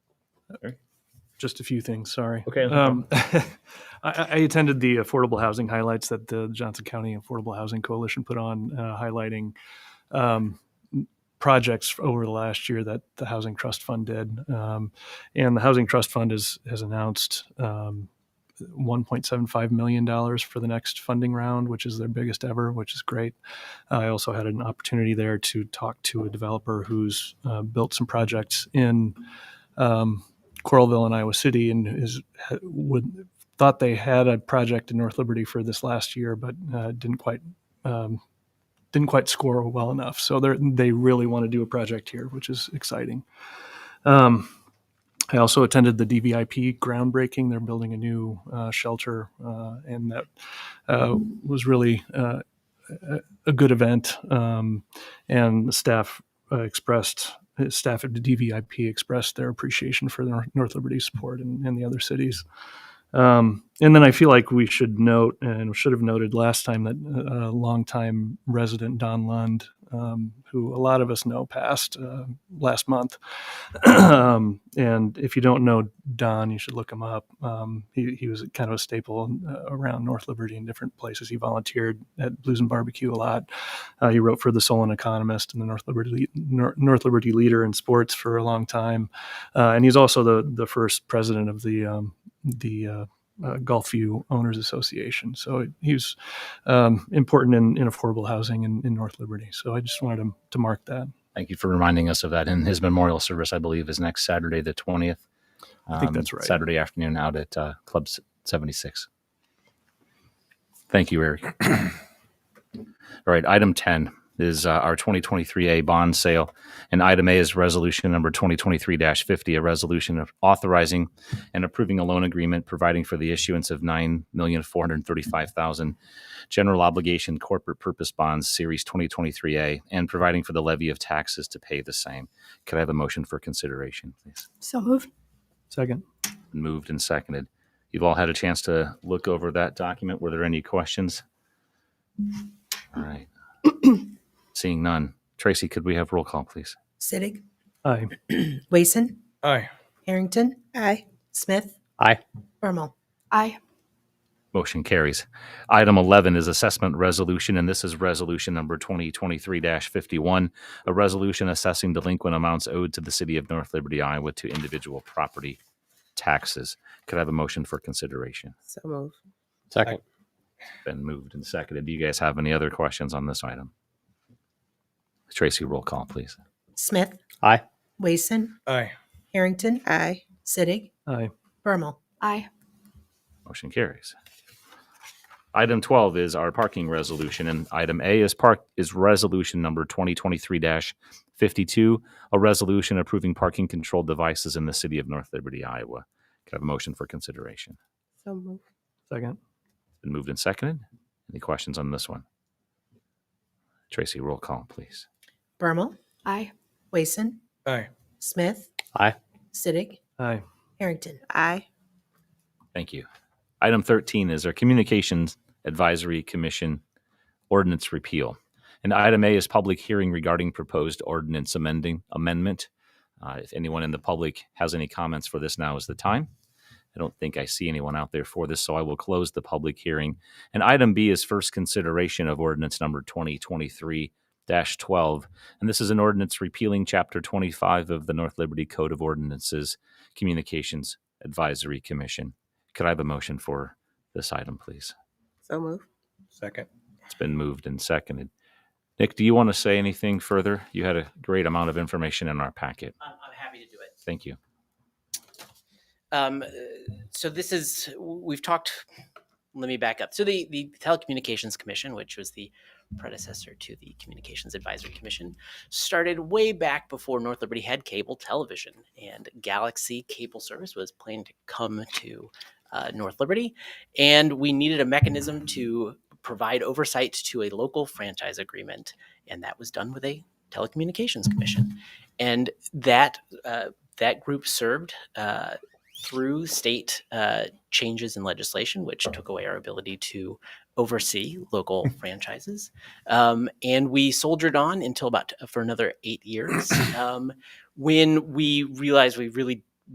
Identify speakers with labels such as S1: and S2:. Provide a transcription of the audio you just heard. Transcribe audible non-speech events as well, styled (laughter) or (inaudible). S1: just a few things. Sorry.
S2: Okay.
S1: Um, I, (laughs) I attended the affordable housing highlights that the Johnson County Affordable Housing Coalition put on, uh, highlighting um, projects over the last year that the Housing Trust Fund did. Um, and the Housing Trust Fund has has announced um, $1.75 million for the next funding round, which is their biggest ever, which is great. I also had an opportunity there to talk to a developer who's uh, built some projects in um, Coralville and Iowa City and is ha- would thought they had a project in North Liberty for this last year, but uh, didn't quite um, didn't quite score well enough. So they they really want to do a project here, which is exciting. Um, I also attended the DVIP groundbreaking. They're building a new uh, shelter, uh, and that uh, was really uh, a, a good event. Um, and the staff uh, expressed uh, staff at the DVIP expressed their appreciation for the Nor- North Liberty support and, and the other cities. Um, and then I feel like we should note and should have noted last time that uh, a longtime resident Don Lund, um, who a lot of us know, passed uh, last month. (clears throat) um, and if you don't know Don, you should look him up. Um, he, he was kind of a staple uh, around North Liberty and different places. He volunteered at Blues and Barbecue a lot. Uh, he wrote for the Solon Economist and the North Liberty Nor- North Liberty Leader in sports for a long time, uh, and he's also the the first president of the um, the uh, uh, Gulfview Owners Association. So it, he was um, important in, in affordable housing in, in North Liberty. So I just wanted to, to mark that.
S3: Thank you for reminding us of that. And his memorial service, I believe, is next Saturday, the 20th. I
S1: think that's right.
S3: Saturday afternoon out at uh, Club S- 76. Thank you,
S1: (clears throat)
S3: Eric. All right, item 10 is uh, our 2023A bond sale. And item A is resolution number 2023 50, a resolution of authorizing and approving a loan agreement providing for the issuance of 9435000 general obligation corporate purpose bonds, Series 2023A, and providing for the levy of taxes to pay the same. Could I have a motion for consideration, please?
S4: So moved.
S1: Second,
S3: Moved and seconded. You've all had a chance to look over that document. Were there any questions? All right. Seeing none. Tracy, could we have roll call, please?
S5: Sittig,
S1: aye.
S5: Wason,
S2: Aye.
S5: Harrington,
S4: Aye.
S5: Smith,
S2: Aye.
S5: Bermal.
S4: Aye.
S3: Motion carries. Item 11 is assessment resolution, and this is resolution number 2023-51, a resolution assessing delinquent amounts owed to the city of North Liberty, Iowa to individual property taxes. Could I have a motion for consideration?
S4: So moved.
S2: Second.
S3: Been moved and seconded. Do you guys have any other questions on this item? Tracy, roll call, please.
S5: Smith.
S2: Aye.
S5: Wason,
S2: Aye.
S5: Harrington,
S4: Aye.
S5: Sittig,
S1: Aye.
S5: Bermal.
S4: Aye.
S3: Motion carries. Item 12 is our parking resolution, and item A is park, is resolution number 2023-52, a resolution approving parking control devices in the city of North Liberty, Iowa. Could I have a motion for consideration?
S4: So moved.
S1: Second,
S3: Been moved and seconded. Any questions on this one? Tracy, roll call, please.
S5: Bermal,
S4: Aye.
S5: Wason,
S2: Aye.
S5: Smith.
S2: Aye.
S5: Sittig,
S1: aye.
S5: Harrington.
S4: Aye.
S3: Thank you. Item 13 is our Communications Advisory Commission ordinance repeal. And item A is public hearing regarding proposed ordinance amending amendment. Uh, if anyone in the public has any comments for this, now is the time. I don't think I see anyone out there for this, so I will close the public hearing. And item B is first consideration of ordinance number 2023 12. And this is an ordinance repealing chapter 25 of the North Liberty Code of Ordinances, Communications Advisory Commission. Could I have a motion for this item, please?
S4: So moved.
S2: Second.
S3: It's been moved and seconded. Nick, do you want to say anything further? You had a great amount of information in our packet.
S6: I'm, I'm happy to do it.
S3: Thank you.
S6: Um, uh, so this is we've talked. Let me back up. So the the Telecommunications Commission, which was the predecessor to the Communications Advisory Commission, started way back before North Liberty had cable television, and Galaxy Cable Service was planned to come to uh, North Liberty, and we needed a mechanism to provide oversight to a local franchise agreement, and that was done with a telecommunications commission, and that uh, that group served. Uh, through state uh, changes in legislation, which took away our ability to oversee local franchises. Um, and we soldiered uh, on until about for another eight years um, when we realized we really